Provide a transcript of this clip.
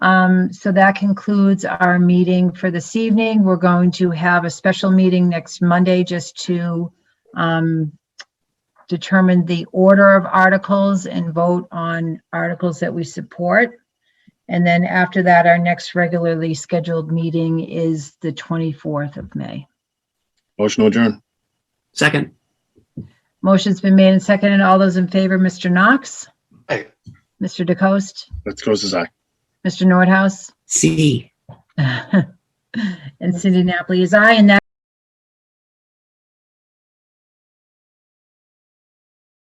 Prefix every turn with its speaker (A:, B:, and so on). A: Um, so that concludes our meeting for this evening. We're going to have a special meeting next Monday just to um, determine the order of articles and vote on articles that we support. And then after that, our next regularly scheduled meeting is the 24th of May.
B: Motion to adjourn.
C: Second.
A: Motion's been made and seconded. All those in favor, Mr. Knox?
D: Aye.
A: Mr. DeCoste?
B: Let's close his eye.
A: Mr. Nordhaus?
C: C.
A: And Cindy Napoli is aye, and that